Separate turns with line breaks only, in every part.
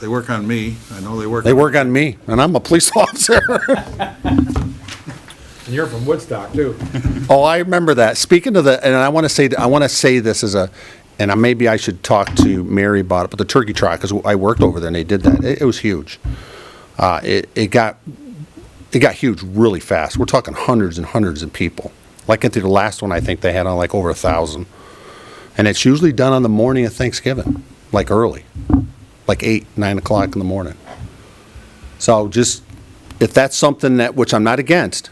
They work on me. I know they work.
They work on me, and I'm a police officer.
And you're from Woodstock, too.
Oh, I remember that. Speaking of the, and I want to say, I want to say this as a, and I, maybe I should talk to Mary about it, but the turkey trot, because I worked over there and they did that. It, it was huge. Uh, it, it got, it got huge really fast. We're talking hundreds and hundreds of people. Like into the last one, I think they had on like over a thousand. And it's usually done on the morning of Thanksgiving, like early, like eight, nine o'clock in the morning. So just, if that's something that, which I'm not against,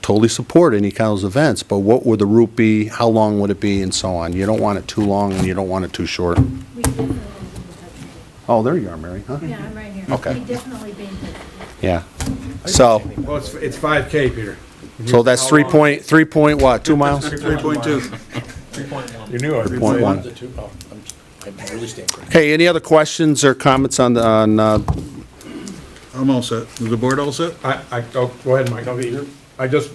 totally support any kind of those events, but what would the route be, how long would it be, and so on? You don't want it too long, and you don't want it too short.
We definitely been
Oh, there you are, Mary, huh?
touching. Yeah, I'm right here.
Okay.
We definitely been touching.
Yeah. So,
Well, it's, it's 5K, Peter.
so that's three point, three point what, two miles?
Three point two.
You knew it.
Point one.
The two, oh, I'm, I really stand corrected.
Okay, any other questions or comments on, the on, uh,
I'm all set. Is the board all set?
I, I, oh, go ahead, Mike. I just,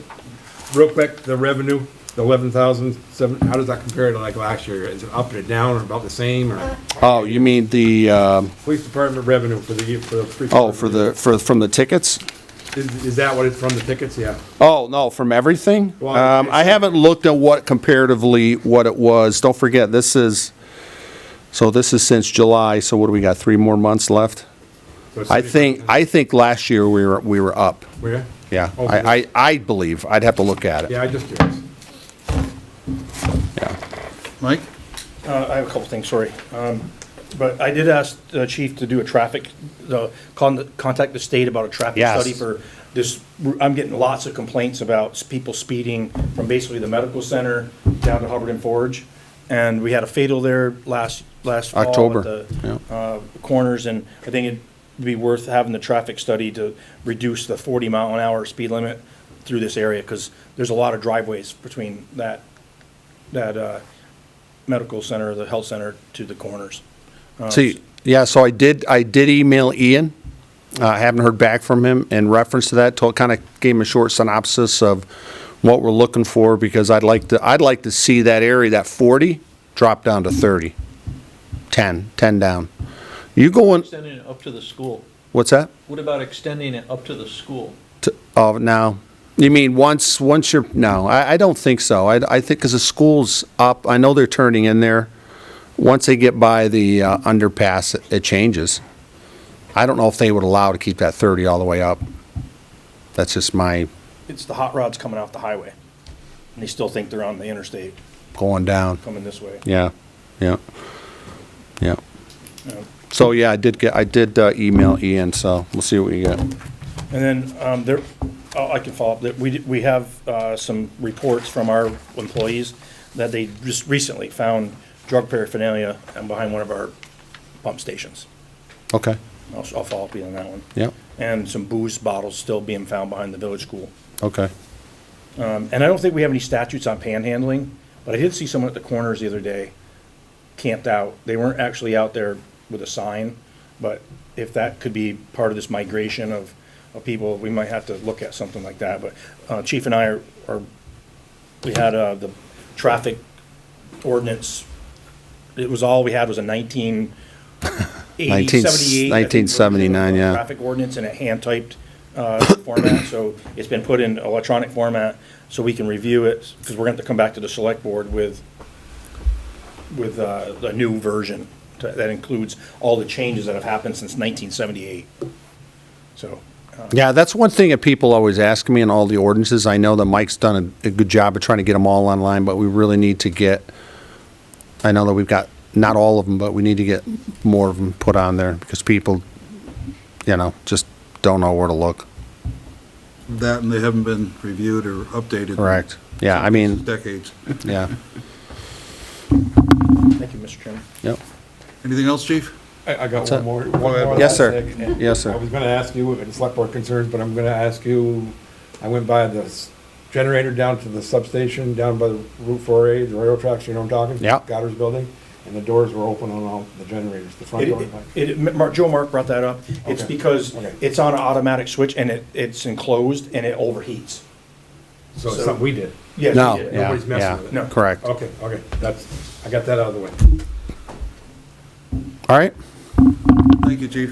real quick, the revenue, the 11,007, how does that compare to like last year? Is it up or down or about the same or?
oh, you mean the, um,
Police department revenue for the, year- for the. three-
oh, for the, for, from the tickets?
Is, is that what it's from the tickets? Yeah.
Oh, no, from everything?
Well,
Um, I
it's-
haven't looked at what comparatively, what it was. Don't forget, this is, so this is since July, so what do we got, three more months left?
So it's-
I think, I think last year we were, we were up.
Where?
Yeah,
Oh,
I, I, I believe. I'd have to look at it.
Yeah, I just curious.
Mike?
Uh, I have a couple things, sorry. Um, But I did ask the chief to do a traffic, the, con- contact the state about a traffic
Yes.
study for this. I'm getting lots of complaints about s- people speeding from basically the medical center down to Hubbard and Forge. And we had a fatal there last, last fall. at
October,
the,
yeah.
uh, Corners, and I think it'd be worth having the traffic study to reduce the 40 mile an hour speed limit through this area, because there's a lot of driveways between that, that uh, medical center, the health center to the corners.
See, yeah, so I did, I did email Ian. Uh, I haven't heard back from him in reference to that, told, kind of gave him a short synopsis of what we're looking for, because I'd like to, I'd like to see that area, that 40, drop down to 30. 10, 10 down. You going,
Extending it up to the school.
what's that?
What about extending it up to the school?
T- Oh, no. You mean once, once you're, no, I, I don't think so. I, I think, because the school's up, I know they're turning in there. Once they get by the uh, underpass, it- it changes. I don't know if they would allow to keep that 30 all the way up. That's just my
It's the hot rods coming off the highway, and they still think they're on the interstate
going down.
coming this way.
Yeah, yeah, yeah.
you know.
So, yeah, I did get, I did uh, email Ian, so we'll see what we get.
And then um, there, I I can follow up, that we, we have uh, some reports from our employees that they just recently found drug paraphernalia and behind one of our pump stations.
Okay,
I'll, I'll follow up with you on that one.
Yep.
And some booze bottles still being found behind the village school.
okay.
Um, And I don't think we have any statutes on panhandling, but I did see someone at the corners the other day camped out. They weren't actually out there with a sign, but if that could be part of this migration of, of people, we might have to look at something like that. But uh, Chief and I are, are- we had uh, the traffic ordinance, it was all we had was a 19
Nineteen-
1978.
1979, yeah.
Traffic ordinance in a hand-typed uh, format, so it's been put in electronic format so we can review it, because we're going to have to come back to the select board with, with uh, the new version to- that includes all the changes that have happened since 1978. So,
Yeah, that's one thing that people always ask me in all the ordinances. I know that Mike's done a, a good job of trying to get them all online, but we really need to get, I know that we've got, not all of them, but we need to get more of them put on there because people, you know, just don't know where to look.
That and they haven't been reviewed or updated. in
Correct. Yeah, I mean,
Decades.
yeah,
thank you, Mr. Chairman.
yep.
Anything else, chief?
I, I got
Sir.
one more. one more
Yes,
last
sir.
thing, and
Yes, sir.
I was gonna ask you, and select board concerns, but I'm gonna ask you, I went by the s- generator down to the substation, down by the Route four A, the railroad tracks, you know what I'm talking?
Yeah.
Goddard's building, and the doors were open on all the generators, the front door.
It, it, it- Mar- Joe Mark brought that up. It's
Okay.
because
Okay.
it's on an automatic switch and it, it's enclosed and it overheats.
So it's
so-
something we did.
Yes,
No,
we did.
yeah,
Nobody's messing with it.
yeah,
No.
correct. All
Okay, okay, that's, I got that out of the way.
right.
Thank you, chief.